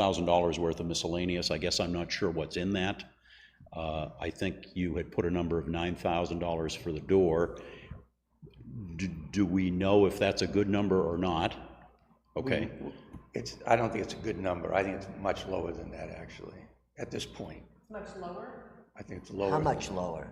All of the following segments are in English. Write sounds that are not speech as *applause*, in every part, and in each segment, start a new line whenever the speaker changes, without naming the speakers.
thousand dollars worth of miscellaneous. I guess I'm not sure what's in that. Uh, I think you had put a number of nine thousand dollars for the door. Do, do we know if that's a good number or not? Okay,
It's, I don't think it's a good number. I think it's much lower than that, actually, at this point.
Much lower?
I think it's lower.
How much lower?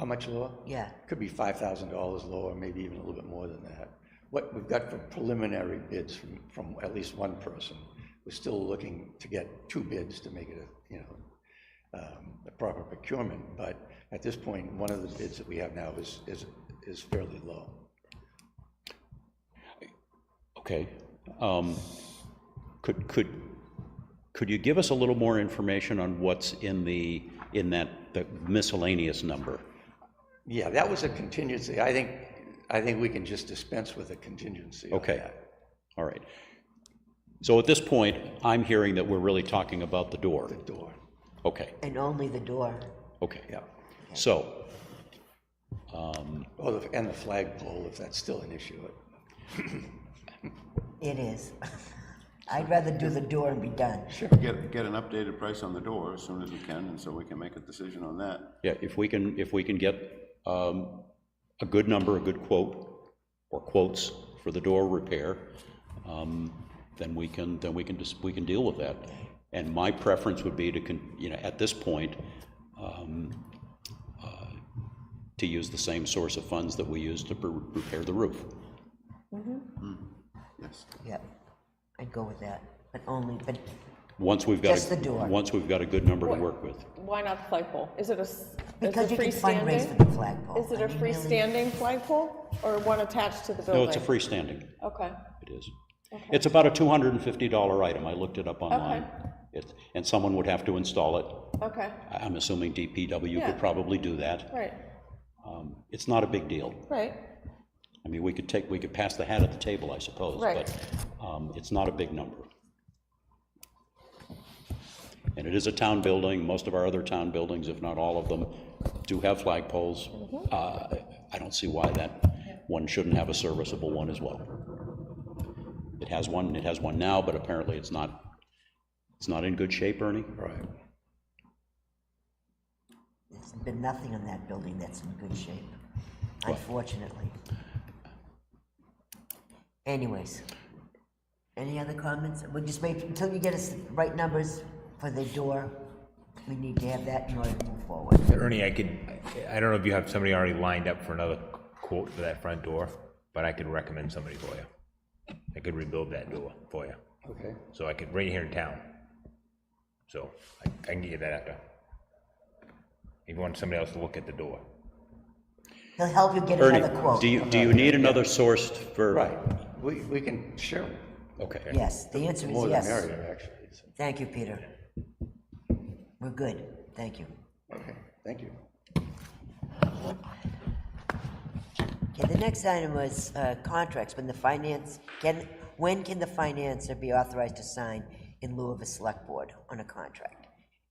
How much lower?
Yeah,
Could be five thousand dollars lower, maybe even a little bit more than that. What we've got for preliminary bids from, from at least one person, we're still looking to get two bids to make it a, you know, um, a proper procurement, but at this point, one of the bids that we have now is, is, is fairly low.
okay. Um, Could, could, could you give us a little more information on what's in the, in that the miscellaneous number?
Yeah, that was a contingency. I think, I think we can just dispense with a contingency on
Okay.
that.
All right. So at this point, I'm hearing that we're really talking about the door.
Door,
Okay,
and only the door.
okay.
yeah.
So,
Oh, the- and the flagpole, if that's still an issue.
It is. *laughs* I'd rather do the door and be done.
Get, get an updated price on the door as soon as we can, and so we can make a decision on that.
yeah, if we can, if we can get um, a good number, a good quote, or quotes for the door repair, um, then we can, then we can just, we can deal with that. And my preference would be to, con- you know, at this point, um, uh, to use the same source of funds that we used to re- repair the roof.
Yes.
Yep, I'd go with that, but only, but
Once we've got. a-
Just the door.
Once we've got a good number to work with.
Why not the flagpole? Is it a, s- is
because
it
you can fundraise for the
freestanding?
flagpole.
Is it
I
a
mean, really,
freestanding flagpole or one attached to the
Oh,
building?
No, it's a freestanding.
Okay,
It is. It's about a $250 item. I looked it up online. It- And someone would have to install it.
okay,
I- I'm assuming DPW could
Yeah.
probably do that.
right,
Um, It's not a big deal.
right,
I mean, we could take, we could pass the hat at the table, I suppose.
Right.
But um, it's not a big number. And it is a town building. Most of our other town buildings, if not all of them, do have flagpoles. Uh, I don't see why that one shouldn't have a serviceable one as well. It has one, it has one now, but apparently it's not, it's not in good shape, Ernie?
Right.
There's been nothing in that building that's in good shape, unfortunately. Anyways, any other comments? We'll just wait until you get us the right numbers for the door. We need to have that in order to move forward.
Ernie, I could, I don't know if you have somebody already lined up for another quote for that front door, but I could recommend somebody for you. I could rebuild that door for you.
Okay.
So I could, right here in town. So I I can get you that after. If you want somebody else to look at the door.
He'll help you get
Ernie,
another quote.
do you, do you need another source for?
Right. We, we can share
Okay.
Yes, the answer is
more than
yes.
merrier, actually. So,
Thank you, Peter. We're good, thank you.
Okay, thank you.
Okay, the next item was uh, contracts, when the finance, can, when can the financer be authorized to sign in lieu of a select board on a contract?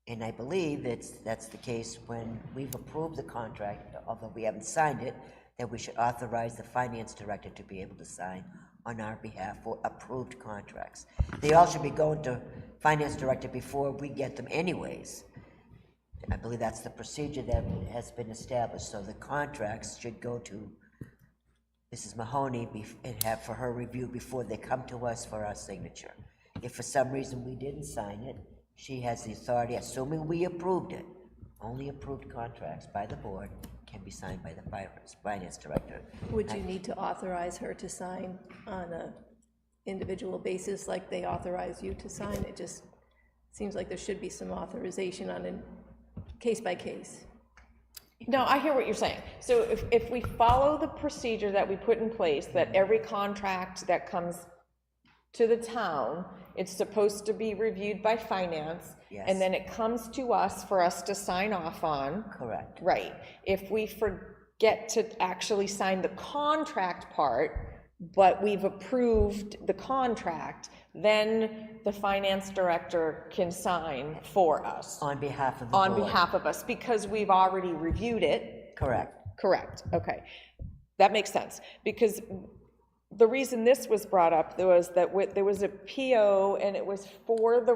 And I believe it's, that's the case when we've approved the contract, although we haven't signed it, that we should authorize the finance director to be able to sign on our behalf for approved contracts. They all should be going to finance director before we get them anyways. I believe that's the procedure that has been established, so the contracts should go to Mrs. Mahoney bef- and have for her review before they come to us for our signature. If for some reason we didn't sign it, she has the authority, assuming we approved it, only approved contracts by the board can be signed by the finance- finance director.
Would you need to authorize her to sign on a individual basis like they authorize you to sign? It just seems like there should be some authorization on a case by case.
no, I hear what you're saying. So if, if we follow the procedure that we put in place, that every contract that comes to the town, it's supposed to be reviewed by finance,
Yes.
and then it comes to us for us to sign off on.
Correct,
Right. If we forget to actually sign the contract part, but we've approved the contract, then the finance director can sign for us
on behalf of the board.
on behalf of us because we've already reviewed it.
Correct,
Correct, okay. That makes sense, because the reason this was brought up was that wi- there was a PO and it was for the